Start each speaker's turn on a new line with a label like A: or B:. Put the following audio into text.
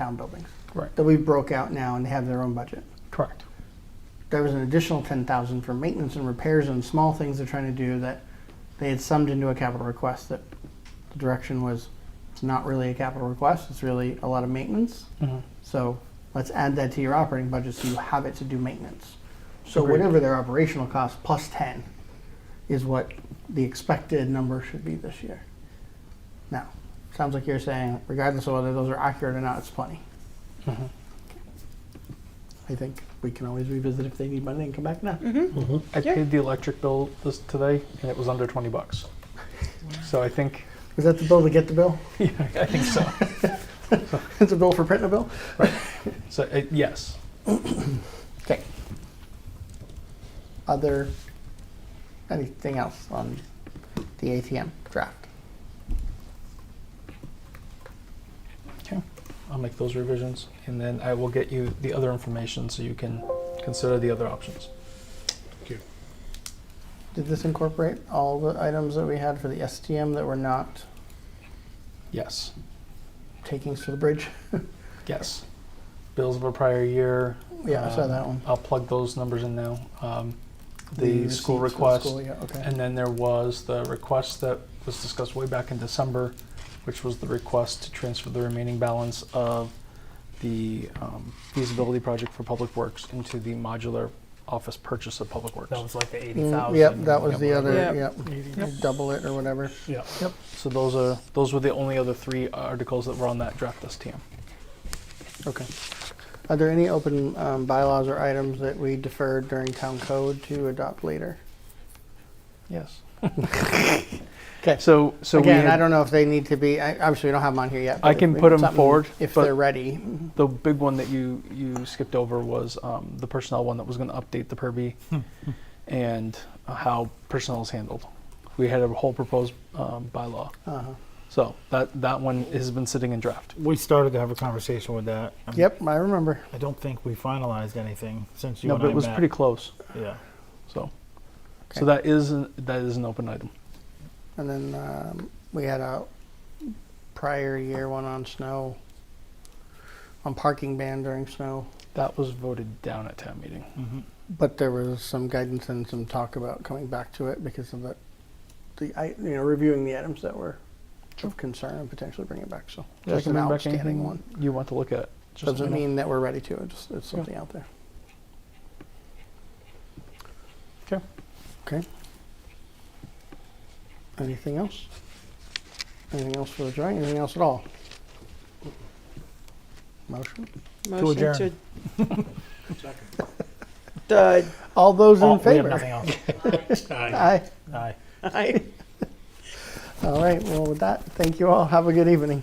A: town buildings
B: Right,
A: that we broke out now and have their own budget.
B: correct.
A: There was an additional ten thousand for maintenance and repairs and small things they're trying to do that they had summed into a capital request that the direction was it's not really a capital request, it's really a lot of maintenance.
B: Mhm.
A: So let's add that to your operating budget so you have it to do maintenance. So
B: Agreed.
A: whatever their operational cost plus ten is what the expected number should be this year. Now, sounds like you're saying regardless of whether those are accurate or not, it's plenty. Mm-hmm.
B: Mhm.
A: I think we can always revisit if they need money and come back now.
B: I
C: Yeah.
B: paid the electric bill this today, and it was under twenty bucks. So I think,
A: Is that the bill to get the bill?
B: yeah, I think so.
A: It's a bill for printing a bill?
B: So uh, yes,
A: Okay. Other, anything else on the ATM draft?
B: okay, I'll make those revisions, and then I will get you the other information so you can consider the other options.
A: Did this incorporate all the items that we had for the STM that were not
B: Yes,
A: takings for the bridge?
B: yes. Bills of a prior year.
A: Yeah, I saw
B: um,
A: that one.
B: I'll plug those numbers in now. Um, the
A: receipts
B: school
A: for the
B: request.
A: school, yeah, Okay.
B: And then there was the request that was discussed way back in December, which was the request to transfer the remaining balance of the um, feasibility project for Public Works into the modular office purchase of Public Works.
C: That was like the eighty
A: Mm,
C: thousand.
A: Yep, that was the other,
B: Yep.
A: yep,
C: Yep.
A: double it or whatever.
C: Yep.
B: So those are, those were the only other three articles that were on that draft STM.
A: Okay. Are there any open um, bylaws or items that we deferred during town code to adopt later?
B: Yes.
A: 'Kay.
B: So, so we
A: Again,
B: had-
A: I don't know if they need to be, I, obviously we don't have them on here yet.
B: I
A: but
B: can
A: if we-
B: put 'em
A: something
B: forward,
A: If
B: but-
A: they're ready.
B: the big one that you, you skipped over was um, the personnel one that was going to update the Purvey and uh, how personnel is handled. We had a whole proposed um, bylaw.
A: Uh-huh.
B: So that, that one has been sitting in draft.
D: We started to have a conversation with that. I'm-
A: Yep, I remember.
D: I don't think we finalized anything since you
B: no,
D: and
B: but
D: I
B: it was
D: met.
B: pretty close.
D: yeah.
B: So,
A: Okay.
B: so that is an, that is an open item.
A: And then um, we had a prior year one on snow, on parking ban during snow.
B: That was voted down at town meeting.
D: hmm
A: But there was some guidance and some talk about coming back to it because of the, the i- you know, reviewing the items that were of concern and potentially bring it back, so.
B: Yeah,
A: Just
B: I
A: an
B: can bring back
A: outstanding
B: anything
A: one.
B: You want to look at? Just let
A: Doesn't
B: me know.
A: mean that we're ready to, it's, it's something out there.
B: Okay.
A: Okay. Anything else? Anything else for the drawing, anything else at all? Motion?
C: Motion
D: adjourn.
C: to. Dud.
A: All those
D: Oh,
A: in
D: we have
A: favor?
D: nothing else.
A: Aye.
D: Aye.
C: Aye.
A: All right, well, with that, thank you all, have a good evening.